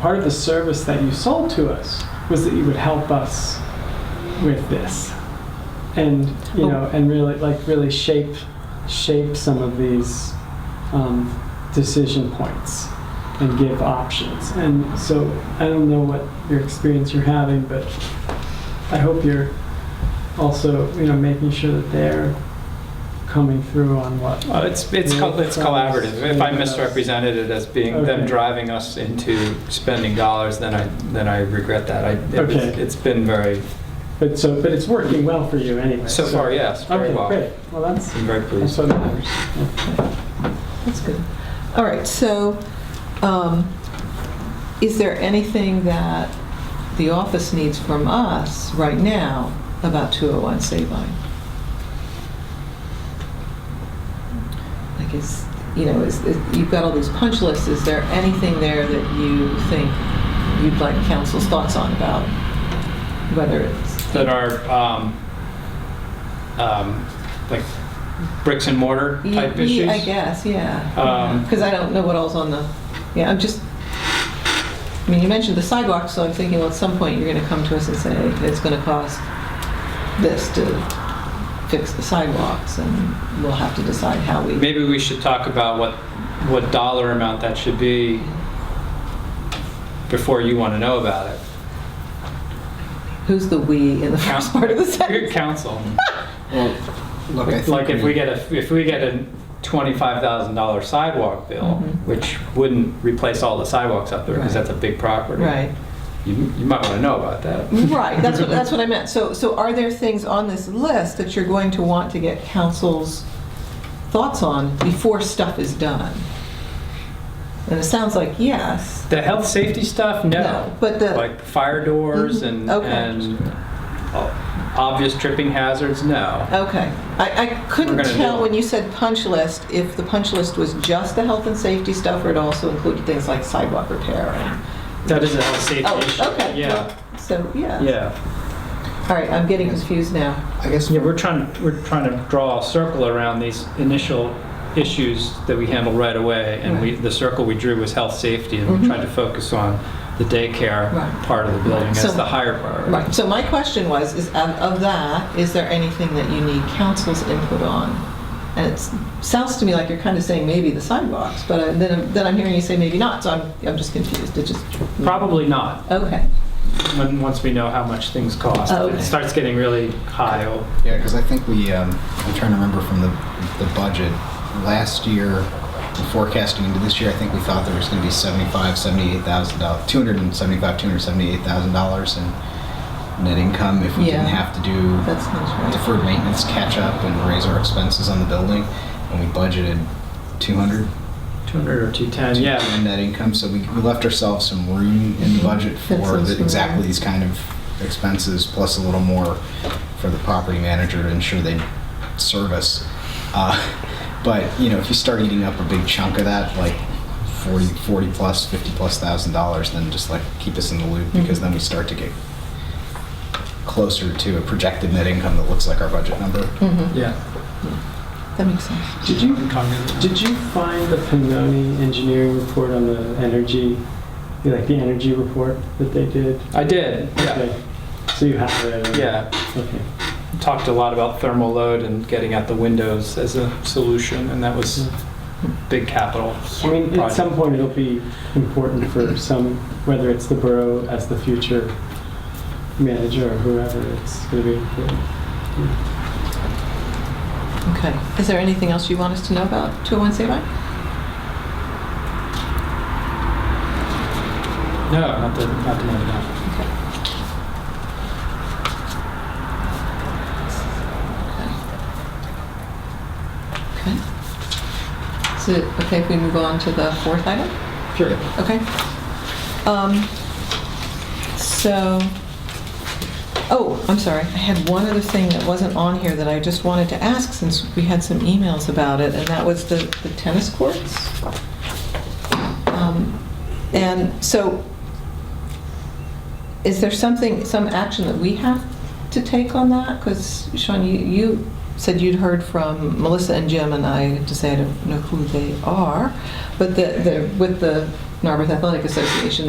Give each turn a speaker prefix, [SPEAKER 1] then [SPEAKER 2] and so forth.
[SPEAKER 1] part of the service that you sold to us was that you would help us with this and you know and really like really shape shape some of these um, decision points and give options and so i don't know what your experience you're having but i hope you're also you know making sure that they're coming through on what
[SPEAKER 2] Well, Uh, it's, it's, col- it's collaborative. If I misrepresented it as being
[SPEAKER 1] Okay.
[SPEAKER 2] them driving us into spending dollars, then I, then I regret that. I, it was-
[SPEAKER 1] Okay.
[SPEAKER 2] it's been very,
[SPEAKER 1] but so but it's working well for you anyway
[SPEAKER 2] so far, yes, very
[SPEAKER 1] okay
[SPEAKER 2] well.
[SPEAKER 1] great well that's
[SPEAKER 2] I'm very
[SPEAKER 1] that's
[SPEAKER 2] pleased.
[SPEAKER 1] what matters
[SPEAKER 3] That's good. All right, so um, is there anything that the office needs from us right now about 201 Sabine? Like is, you know, is, is- you've got all these punch lists, is there anything there that you think you'd like council's thoughts on about whether it's,
[SPEAKER 2] That are, um, um, like bricks and mortar
[SPEAKER 3] Ye-
[SPEAKER 2] type
[SPEAKER 3] ye-
[SPEAKER 2] issues?
[SPEAKER 3] I guess, yeah.
[SPEAKER 2] Um,
[SPEAKER 3] Because I don't know what else on the, yeah, I'm just, I mean, you mentioned the sidewalk, so I'm thinking, well, at some point, you're gonna come to us and say, it's gonna cost this to fix the sidewalks, and we'll have to decide how we,
[SPEAKER 2] Maybe we should talk about what, what dollar amount that should be before you want to know about it.
[SPEAKER 3] who's the "we" in the first part of the
[SPEAKER 2] Good
[SPEAKER 3] sentence?
[SPEAKER 2] counsel.
[SPEAKER 4] Well, look, I
[SPEAKER 2] Like if
[SPEAKER 4] think,
[SPEAKER 2] we
[SPEAKER 4] we-
[SPEAKER 2] get a, if we get a twenty-five thousand dollar sidewalk bill,
[SPEAKER 3] Mhm.
[SPEAKER 2] which wouldn't replace all the sidewalks up there, because
[SPEAKER 3] Right.
[SPEAKER 2] that's a big property.
[SPEAKER 3] Right,
[SPEAKER 2] You, you might want to know about that.
[SPEAKER 3] right, that's what, that's what I meant. So, so are there things on this list that you're going to want to get council's thoughts on before stuff is done? And it sounds like yes.
[SPEAKER 2] The health, safety stuff, no.
[SPEAKER 3] But the,
[SPEAKER 2] Like fire doors and,
[SPEAKER 3] Mhm, okay.
[SPEAKER 2] and uh, obvious tripping hazards, no.
[SPEAKER 3] Okay. I, I couldn't
[SPEAKER 2] We're gonna do
[SPEAKER 3] tell
[SPEAKER 2] it.
[SPEAKER 3] when you said punch list, if the punch list was just the health and safety stuff, or it also included things like sidewalk repair and...
[SPEAKER 2] That is a health, safety issue.
[SPEAKER 3] Oh, okay.
[SPEAKER 2] Yeah,
[SPEAKER 3] So, yeah.
[SPEAKER 2] yeah.
[SPEAKER 3] All right, I'm getting confused now.
[SPEAKER 4] I guess,
[SPEAKER 2] Yeah, we're trying, we're trying to draw a circle around these initial issues that we handle right away. And we, the circle we drew was health, safety, and we
[SPEAKER 3] Mhm.
[SPEAKER 2] tried to focus on the daycare
[SPEAKER 3] Right.
[SPEAKER 2] part of the building
[SPEAKER 3] So-
[SPEAKER 2] as the higher priority.
[SPEAKER 3] Right, so my question was, is of of that, is there anything that you need council's input on? And it sounds to me like you're kind of saying maybe the sidewalks, but uh, then, I'm- then I'm hearing you say maybe not, so I'm, I'm just confused. It just...
[SPEAKER 2] Probably not,
[SPEAKER 3] Okay.
[SPEAKER 2] when, once we know how much things cost.
[SPEAKER 3] Oh,
[SPEAKER 2] If
[SPEAKER 3] okay.
[SPEAKER 2] It starts getting really high. oh,
[SPEAKER 4] yeah, because I think we, um, I'm trying to remember from the, the budget, last year, forecasting into this year, I think we thought there was going to be 75, 78,000, dollars 275, 278,000 dollars in net income if we didn't
[SPEAKER 3] Yeah.
[SPEAKER 4] have to do
[SPEAKER 3] That sounds right.
[SPEAKER 4] deferred maintenance catch up and raise our expenses on the building, and we budgeted 200
[SPEAKER 2] 200 or 210, yeah.
[SPEAKER 4] in net income, so we we left ourselves some room in the budget
[SPEAKER 3] That
[SPEAKER 4] for
[SPEAKER 3] seems
[SPEAKER 4] the-
[SPEAKER 3] fair.
[SPEAKER 4] exactly these kind of expenses, plus a little more for the property manager to ensure they service. Uh, But, you know, if you start eating up a big chunk of that, like 40, 40 plus, 50 plus thousand dollars, then just like keep us in the loop, because then we start to get closer to a projected net income that looks like our budget number.
[SPEAKER 3] Mhm.
[SPEAKER 2] Yeah.
[SPEAKER 3] That makes sense.
[SPEAKER 1] did you Did you find the Pinoni engineering report on the energy, like the energy report that they did?
[SPEAKER 2] I did, yeah,
[SPEAKER 1] Okay. So you have it?
[SPEAKER 2] yeah.
[SPEAKER 1] Okay.
[SPEAKER 2] Talked a lot about thermal load and getting out the windows as a solution, and that was
[SPEAKER 3] Mm-hmm.
[SPEAKER 2] big capital.
[SPEAKER 1] I mean, at
[SPEAKER 2] project.
[SPEAKER 1] some point, it'll be important for some, whether it's the borough as the future manager or whoever, it's going to be important.
[SPEAKER 3] Okay. Is there anything else you want us to know about 201 Sabine?
[SPEAKER 2] No, not the, not the money, no.
[SPEAKER 3] Okay. Is it okay if we move on to the fourth item?
[SPEAKER 4] Sure.
[SPEAKER 3] Okay. Um, So, oh, I'm sorry, I had one other thing that wasn't on here that I just wanted to ask since we had some emails about it, and that was the the tennis courts. Um, And so, is there something, some action that we have to take on that? Because Sean, you, you said you'd heard from Melissa and Jim, and I have to say I don't know who they are, but the, the, with the Narberth Athletic Association,